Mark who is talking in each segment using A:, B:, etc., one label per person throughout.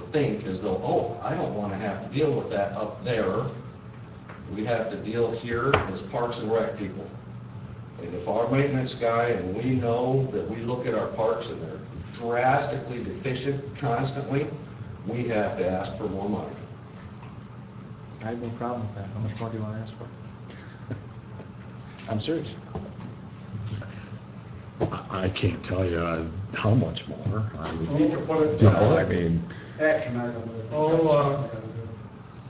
A: think is though, oh, I don't want to have to deal with that up there. We have to deal here as Parks and Rec people. And if our maintenance guy, and we know that we look at our parks and they're drastically deficient constantly, we have to ask for more money.
B: I have no problem with that. How much more do you want to ask for? I'm serious.
C: I- I can't tell you uh, how much more.
A: We
C: I'm-
A: need to put it,
C: You know, I mean,
D: Action item.
E: Oh, uh,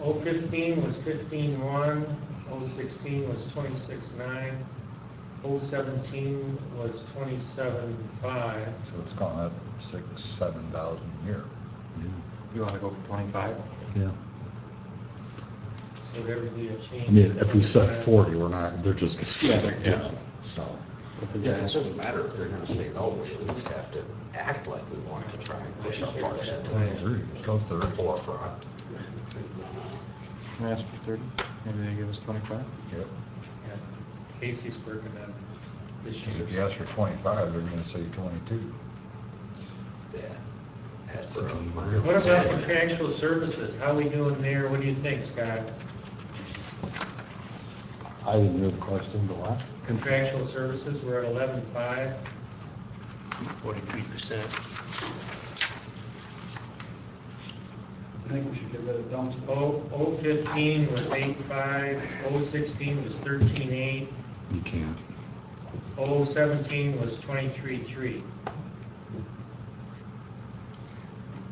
E: Oh fifteen was fifteen one, oh sixteen was twenty-six nine, oh seventeen was twenty-seven five.
F: So it's gone up six, seven thousand a year.
B: You want to go for 25?
C: yeah.
E: So there would be a change.
C: I mean, if we said
E: Uh,
C: 40, we're not, they're just,
B: Yeah, they're-
C: yeah, so.
A: yeah, it doesn't matter if they're gonna say no, we at least have to act like we want to try and push our parks into the
F: Go third.
A: forefront.
B: Can we ask for 30? Maybe they give us 25?
F: Yep.
E: yeah, Casey's working on this
F: Because if you
E: year's.
F: ask for twenty-five, they're gonna say twenty-two.
A: Yeah. That's a game.
E: What about contractual services? How we doing there? What do you think, Scott?
C: I didn't hear the question, but what?
E: Contractual services, we're at eleven five.
G: forty-three percent.
D: I think we should get rid of dumpster.
E: Oh, oh fifteen was eight five, oh sixteen was thirteen eight,
C: You can't.
E: oh seventeen was twenty-three three.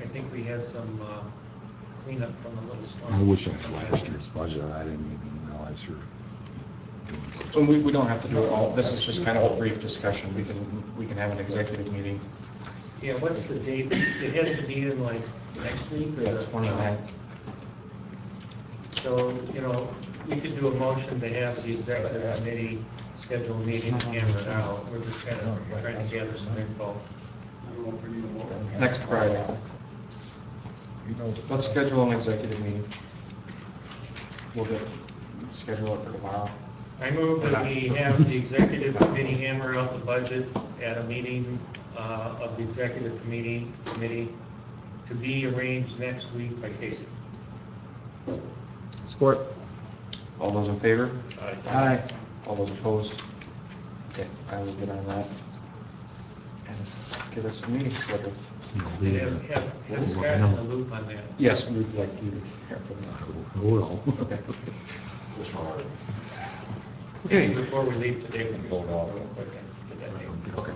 E: I think we had some uh, cleanup from the little storm.
C: I wish I had last year's budget. I didn't even realize you're doing
B: So we, we don't have to do it all. This is just kind of a brief discussion. We can, we can have an executive meeting.
E: Yeah, what's the date? It has to be in like next week or
B: We
E: the?
B: have 29.
E: So, you know, we could do a motion to have the executive committee schedule a meeting to hammer it out. We're just kind of trying to gather some info.
D: I don't know if we need a vote.
B: Next Friday.
F: You know. the-
B: Let's schedule an executive meeting. We'll get, schedule it for tomorrow.
E: I move that we have the executive committee hammer out the budget at a meeting uh, of the executive committee, committee to be arranged next week by Casey.
B: Support. All those in favor?
E: Uh,
B: Aye. All those opposed? Okay, I will get on that. And get us a meeting scheduled.
C: it.
E: Have, have- have Scott in the loop on that.
B: Yes, we'd like you to hear from them.
C: I will.
B: Okay.
E: Okay, before we leave today, we
F: Hold on.
B: Okay.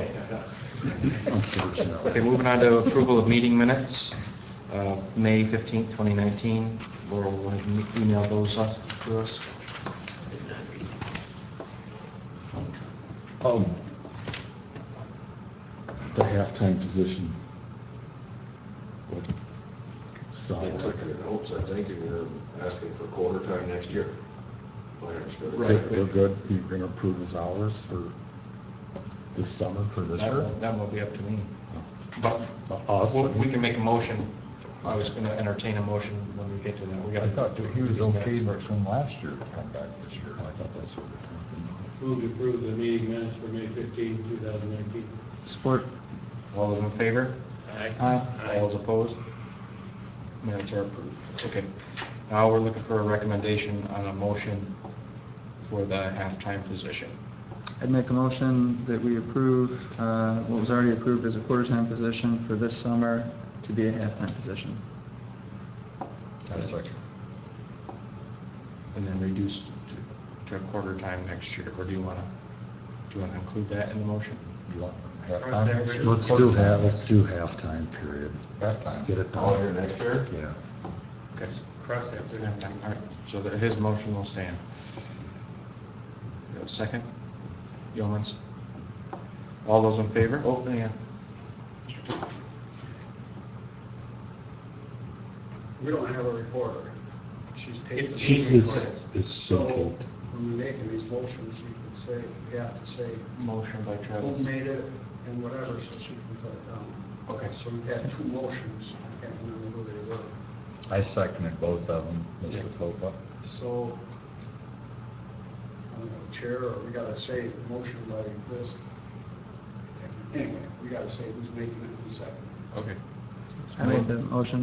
C: Unfortunately.
B: Okay, moving on to approval of meeting minutes, Uh, May 15th, 2019. Laurel will e-, email those up to us.
C: Um, The halftime position. What? So,
A: They took their notes, I think, and they're asking for quarter time next year. If I understood it.
C: so we're good, you're gonna approve his hours for this summer, for this
B: That
C: year? Uh,
B: will- that will be up to me.
F: Oh.
B: But we'll-
C: Awesome.
B: we can make a motion. I was going to entertain a motion when we get to that. We got
F: I
B: to
F: thought that he was okay from last year to come back this year.
C: I thought that's what we're
H: Move to approve the meeting minutes for May 15, 2019.
B: Support. All those in favor? Aye. All those opposed? Minutes are approved. Okay. Now we're looking for a recommendation on a motion for the halftime position.
I: I'd make a motion that we approve uh, what was already approved as a quarter-time position for this summer to be a half-time position.
F: That's like,
B: and then reduced to- to a quarter time next year, or do you want to, do you want to include that in the motion?
F: you want half
E: Cross that
F: time?
E: bridge.
C: doing. Let's do half, let's do halftime period,
F: Half time.
C: get it
A: All
C: done,
A: here next year?
C: yeah.
B: Okay.
E: Cross that. bridge.
B: All right, so that his motion will stand. You have a Second? Yeomans? All those in favor? Oh, yeah.
D: We don't have a recorder. She's paid.
E: It's
D: the-
E: Jean
C: It's,
E: recorded.
C: it's so
D: So
C: cute.
D: when we make these motions, you can say, you have to say
B: Motion by
D: who
B: Travis.
D: made it and whatever, so she can put it down.
B: Okay.
D: So we had two motions. I can't remember who they were.
F: I seconded both of them, Mr. Popa.
D: So I don't know, chair, or we gotta say motion by this. Anyway, we gotta say who's making it, who's second.
B: Okay. I made the motion.